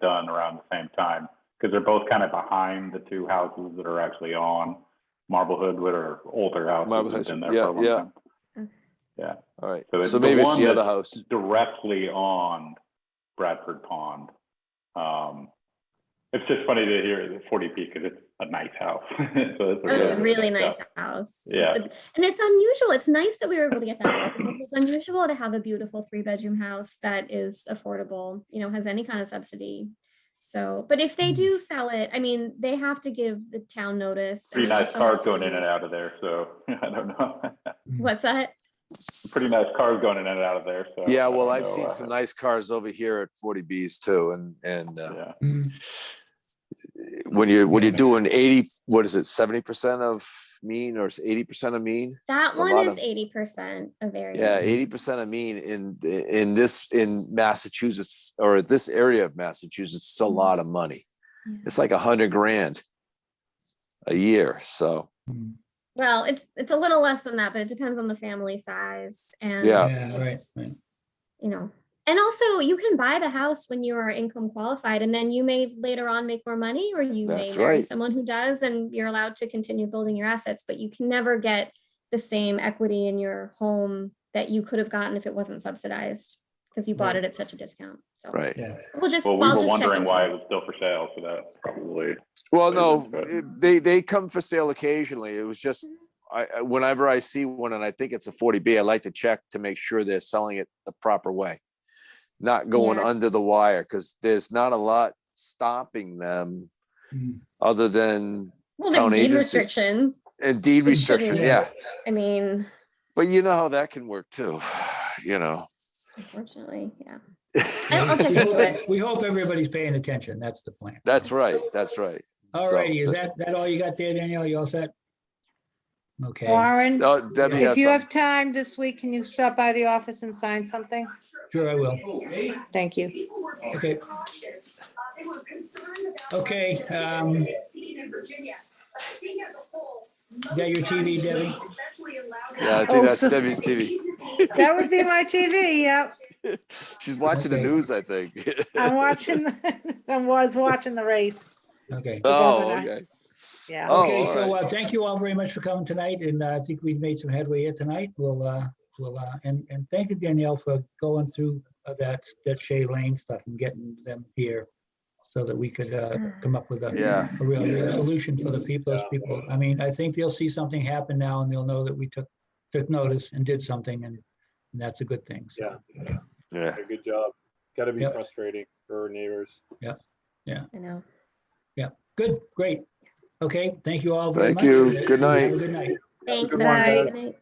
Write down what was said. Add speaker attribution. Speaker 1: done around the same time. Because they're both kind of behind the two houses that are actually on Marblehead, that are older houses
Speaker 2: Marblehead's-
Speaker 1: that's been there
Speaker 2: yeah,
Speaker 1: for a long
Speaker 2: yeah.
Speaker 1: time.
Speaker 2: All right,
Speaker 1: So it's
Speaker 2: so
Speaker 1: the
Speaker 2: maybe it's
Speaker 1: one
Speaker 2: the
Speaker 1: that- Uh,
Speaker 2: other house.
Speaker 1: directly on Bradford Pond. Um, it's just funny to hear the forty P because it's a nice house. So it's a
Speaker 2: Yeah.
Speaker 3: That's a really
Speaker 1: nice
Speaker 3: nice
Speaker 1: house.
Speaker 3: house. It's
Speaker 1: Yeah.
Speaker 3: a- And it's unusual. It's nice that we were able to get that. because It's unusual to have a beautiful three bedroom house that is affordable, you know, has any kind of subsidy. So, but if
Speaker 1: Hmm.
Speaker 3: they do sell it, I mean, they have to give the town notice. and
Speaker 1: Pretty nice
Speaker 3: it's-
Speaker 1: cars going in and out of there, so I don't know.
Speaker 3: What's that?
Speaker 1: Pretty nice cars going in and out of there, so.
Speaker 2: Yeah,
Speaker 1: I don't
Speaker 2: well, I've
Speaker 1: know,
Speaker 2: seen
Speaker 1: uh,
Speaker 2: some nice cars over here at forty Bs too, and, and, uh,
Speaker 1: Yeah,
Speaker 2: when you're, when you're doing eighty, what is it, seventy percent of mean or eighty percent of mean?
Speaker 3: That
Speaker 2: It's a
Speaker 3: one
Speaker 2: lot
Speaker 3: is
Speaker 2: of-
Speaker 3: eighty percent of area.
Speaker 2: Yeah, eighty percent of mean in, in this, in Massachusetts, or this area of Massachusetts,
Speaker 1: Mm-hmm.
Speaker 2: it's a lot of money.
Speaker 3: Yeah.
Speaker 2: It's like a hundred grand a year, so,
Speaker 3: Well, it's, it's a little less than that, but it depends on the family size and.
Speaker 2: Yeah.
Speaker 4: Yeah, right,
Speaker 3: it's-
Speaker 4: right.
Speaker 3: you know. And also you can buy the house when you are income qualified and then you may later on make more money or you may
Speaker 2: That's
Speaker 3: marry
Speaker 2: right.
Speaker 3: someone who does and you're allowed to continue building your assets, but you can never get the same equity in your home that you could have gotten if it wasn't subsidized because you bought
Speaker 4: Right.
Speaker 3: it at such a discount. So
Speaker 2: right.
Speaker 4: Yeah.
Speaker 3: we'll just.
Speaker 1: well, we
Speaker 3: I'll
Speaker 1: were
Speaker 3: just check
Speaker 1: wondering
Speaker 3: into
Speaker 1: why
Speaker 3: it.
Speaker 1: it was still for sale, so that's probably,
Speaker 2: Well,
Speaker 1: Flavors,
Speaker 2: no,
Speaker 1: but-
Speaker 2: it- they, they come for sale occasionally. It was just,
Speaker 3: Mhm.
Speaker 2: I, I- whenever I see one and I think it's a forty B, I like to check to make sure they're selling it the proper way. Not going
Speaker 3: Yeah.
Speaker 2: under the wire, because there's not a lot stopping them
Speaker 4: Mm.
Speaker 2: other than
Speaker 3: Well,
Speaker 2: town
Speaker 3: the deed
Speaker 2: agencies.
Speaker 3: restriction,
Speaker 2: a deed
Speaker 3: They
Speaker 2: restriction,
Speaker 3: shouldn't.
Speaker 2: yeah.
Speaker 3: I mean,
Speaker 2: But you know how that can work too, you know.
Speaker 3: unfortunately, yeah.
Speaker 4: Yeah,
Speaker 3: I'll-
Speaker 5: Oh,
Speaker 3: I'll
Speaker 4: we-
Speaker 3: check
Speaker 4: we
Speaker 3: into
Speaker 4: hope-
Speaker 3: it.
Speaker 4: We hope everybody's paying attention. That's the plan.
Speaker 2: That's right, that's right.
Speaker 4: All
Speaker 2: So,
Speaker 4: righty, is
Speaker 2: th-
Speaker 4: that, that all you got there, Danielle? You all set? Okay.
Speaker 5: Warren,
Speaker 2: No, Debbie
Speaker 5: if
Speaker 2: has
Speaker 5: you
Speaker 2: some.
Speaker 5: have time this week, can you stop by the office and sign something?
Speaker 4: Sure, I will.
Speaker 5: Thank you.
Speaker 4: Okay. Okay, um. Got your TV, Debbie?
Speaker 2: Yeah, I
Speaker 5: Oh,
Speaker 2: think that's
Speaker 5: so-
Speaker 2: Debbie's TV.
Speaker 5: That would be my TV, yep.
Speaker 2: She's watching the
Speaker 4: Okay.
Speaker 2: news, I think.
Speaker 5: I'm watching, the- I was watching the race.
Speaker 4: Okay.
Speaker 2: Oh,
Speaker 5: governor.
Speaker 2: okay.
Speaker 5: Yeah.
Speaker 2: Oh,
Speaker 4: Okay,
Speaker 2: all
Speaker 4: so,
Speaker 2: right.
Speaker 4: uh, thank you all very much for coming tonight, and uh, I think we've made some headway here tonight. We'll, uh, we'll, uh, and, and thank you Danielle for going through uh, that, that Shay Lane stuff and getting them here so that we could, uh, come up with a
Speaker 2: Yeah.
Speaker 4: a real real solution for the people, those people. I mean, I think they'll see something happen now and they'll know that we took, took notice and did something and and that's a good thing. So,
Speaker 6: Yeah,
Speaker 2: Yeah.
Speaker 6: a good job. Gotta be
Speaker 4: Yep.
Speaker 6: frustrating for neighbors.
Speaker 3: I know.
Speaker 4: good, great. Okay, thank you all very
Speaker 2: Thank
Speaker 4: much.
Speaker 2: you. Good
Speaker 4: Have a
Speaker 2: night.
Speaker 4: Good night.
Speaker 3: Thanks.
Speaker 6: good one,
Speaker 3: everyone.
Speaker 6: guys.
Speaker 3: Good night.